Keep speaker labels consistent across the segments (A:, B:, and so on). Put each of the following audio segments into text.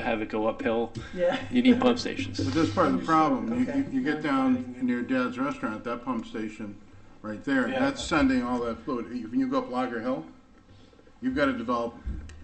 A: have it go uphill.
B: Yeah.
A: You need pump stations.
C: But that's part of the problem. You-
B: Okay.
C: You, you get down near Dad's Restaurant, that pump station right there,
A: Yeah.
C: that's sending all that fluid. You- When you go up Lager Hill, you've got to develop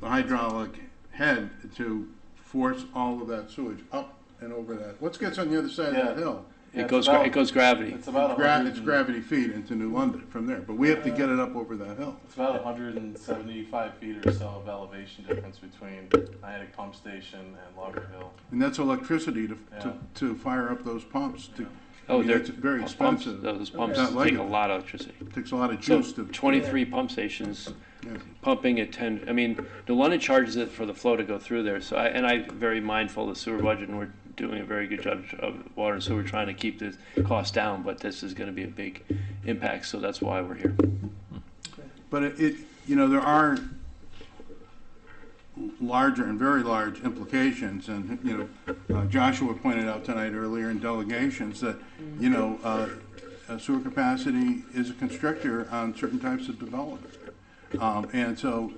C: the hydraulic head to force all of that sewage up and over that. What's gets on the other side of that
D: Yeah. Mm-hmm.
C: hill?
A: It goes, gra- it goes gravity.
D: It's about a
C: Gra-
D: hundred.
C: it's gravity feed into New London from there, but we have to get it up over that hill.
D: It's about 175 feet or so of elevation difference between Nyack Pump Station and Logger Hill.
C: And that's electricity to,
D: Yeah.
C: to, to fire up those pumps to, I
A: Oh,
C: mean,
A: they're.
C: it's very
A: pumps- pumps-
C: expensive.
A: Those pumps
C: Not like
A: take a
C: it.
A: lot of electricity.
C: takes a lot of
A: So
C: juice to.
A: twenty-three pump stations
C: Yeah.
A: pumping at ten, I mean, New London charges it for the flow to go through there, so I, and I'm very mindful of the sewer budget, and we're doing a very good job of water and sewer, trying to keep the cost down, but this is gonna be a big impact, so that's why we're here.
C: But it, it, you know, there are larger and very large implications, and, you know, uh, Joshua pointed out tonight earlier in delegations that, you know, uh, uh, sewer capacity is a constrictor on certain types of development. Um, and so,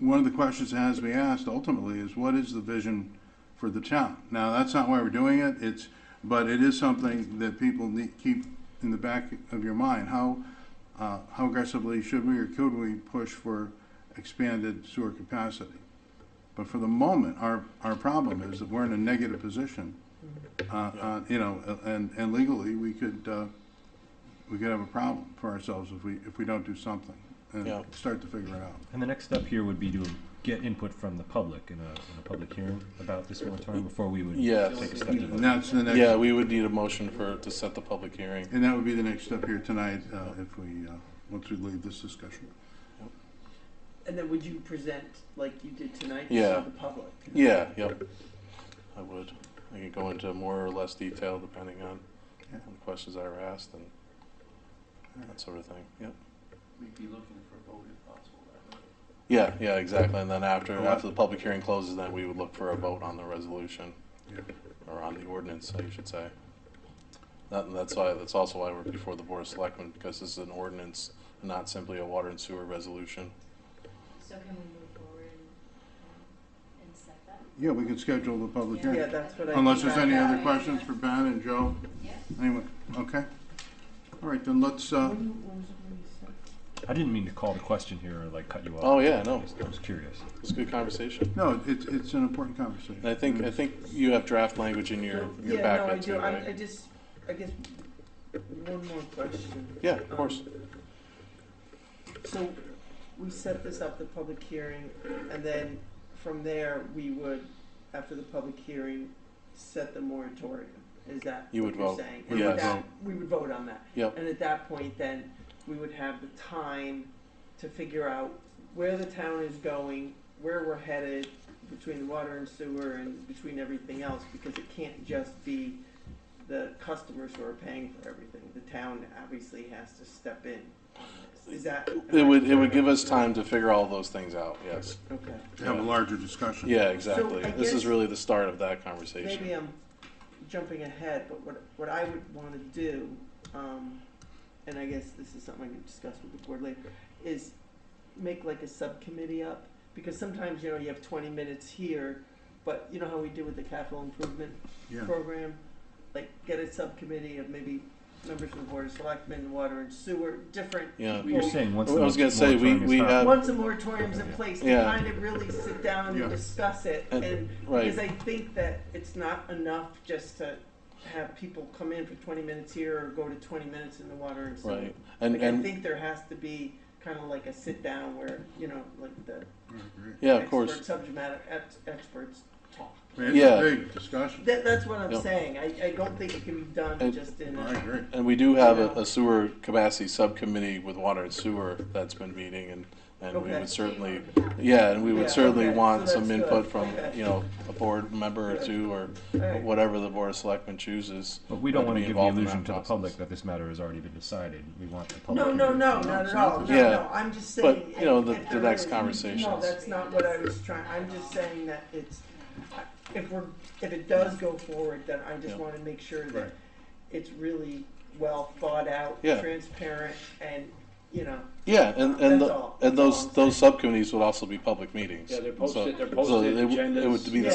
C: one of the questions that has to be asked ultimately is what is the vision for the town? Now, that's not why we're doing it, it's, but it is something that people need, keep in the back of your mind. How, uh, how aggressively should we or could we push for expanded sewer capacity? But for the moment, our, our problem is that we're in a negative position. Uh, uh, you know, and, and legally, we could, uh, we could have a problem for ourselves if we, if we don't do something and
D: Yeah.
C: start to figure it out.
E: And the next step here would be to get input from the public in a, in a public hearing about this moratorium before we would
D: Yes.
E: take a step to vote.
C: And that's the next.
D: Yeah, we would need a motion for, to set the public hearing.
C: And that would be the next step here tonight, uh, if we, uh, once we leave this discussion.
B: And then would you present like you did tonight
D: Yeah.
B: to the public?
D: Yeah, yep. I would. I could go into more or less detail depending on
C: Yeah.
D: the questions that were asked and that sort of thing, yep.
F: We'd be looking for a vote if possible.
D: Yeah, yeah, exactly. And then after,
C: Well,
D: after the public hearing closes, then we would look for a vote on the resolution.
C: Yeah.
D: Or on the ordinance, I should say. That, and that's why, that's also why we're before the Board of Selectmen, because this is an ordinance, not simply a water and sewer resolution.
G: So can we move forward and, and set that?
C: Yeah, we could schedule the public
G: Yeah.
B: Yeah,
C: hearing.
B: that's what I.
C: Unless
B: think
C: there's
B: I
C: any
B: got.
C: other questions for Ben and Joe,
G: Yeah.
C: anyway, okay? All right, then let's, uh,
E: I didn't mean to call the question here or like cut you off.
D: Oh, yeah, no.
E: Just- I was curious.
D: It's a good conversation.
C: no, it's, it's an important conversation.
D: And I think, I think you have draft language in your, your
B: Yeah, no, I
D: packet
B: do.
D: too,
B: I, I
D: right?
B: just, I guess, one more question.
D: Yeah, of course.
B: So we set this up, the public hearing, and then from there, we would, after the public hearing, set the moratorium. Is that
D: You
B: what
D: would
B: you're
D: vote.
B: saying?
D: We
B: And
D: would
B: that-
C: vote.
B: We would vote on that.
D: Yep.
B: And at that point, then, we would have the time to figure out where the town is going, where we're headed, between the water and sewer and between everything else, because it can't just be the customers who are paying for everything. The town obviously has to step in. on this. Is that?
D: It would, it would give us time to figure all those things out, yes.
B: Okay.
C: To have a larger discussion.
D: Yeah, exactly.
B: I
D: This
B: guess-
D: is really the start of that conversation.
B: Maybe I'm jumping ahead, but what, what I would want to do, um, and I guess this is something I can discuss with the board later, is make like a subcommittee up, because sometimes, you know, you have twenty minutes here, but you know how we do with the capital improvement
C: Yeah.
B: program? Like, get a subcommittee of maybe members of the board of selectmen, water and sewer, different.
D: Yeah.
B: people.
E: You're saying once
D: I
E: the
D: was gonna say, we-
E: moratorium is
D: we
E: out-
D: have-
B: Once the moratorium's in place, to
D: Yeah.
B: kind of really sit down
C: Yeah.
B: and discuss it,
D: And-
B: and
D: Right.
B: because I think that it's not enough just to have people come in for twenty minutes here or go to twenty minutes in the water and sewer.
D: Right, and,
B: Like, I
D: and,
B: think there has to be kind of like a sit down where, you know, like the
C: I agree.
D: yeah, of course.
B: expert, subject matter ex- experts talk.
C: I mean, It's
D: Yeah.
C: a big discussion,
B: That, that's what I'm
D: Yep.
B: saying, I, I don't think it can be
D: I-
B: done just in
C: I
B: a,
C: agree.
D: And we do have a a sewer capacity subcommittee with water and sewer that's been meeting and, and we
B: Okay.
D: would certainly, yeah, and we
B: Yeah,
D: would certainly
B: okay,
D: want
B: so
D: some
B: that's good,
D: input from,
B: okay.
D: you know, a board member or two or
B: Alright.
D: whatever the board of selectmen chooses.
E: But we don't
D: We'd
E: want
D: be
E: to give the
D: involved in
E: illusion
D: that
E: to the
D: process.
E: public that this matter has already been decided. We want the public.
B: no, no,
E: hearing.
B: no, not at all, no,
D: Yeah.
B: no, I'm just
D: But,
B: saying.
D: you know, the-
B: if
D: the
B: there
D: next
B: is- No,
D: conversations.
B: that's not what I was trying, I'm just saying that it's, if we're, if it does go forward, then I just
D: Yeah.
B: wanna make sure
C: Right.
B: that it's really well thought out,
D: Yeah.
B: transparent, and you know,
D: Yeah, and,
B: That's
D: and, the-
B: all.
D: and
B: That's all
D: those,
B: I'm
D: those subcommittees would also be public meetings.
A: Yeah, they're
D: So-
A: posted- they're
D: so
A: posted
D: it would- It
A: agendas.
D: would be the
B: Yeah.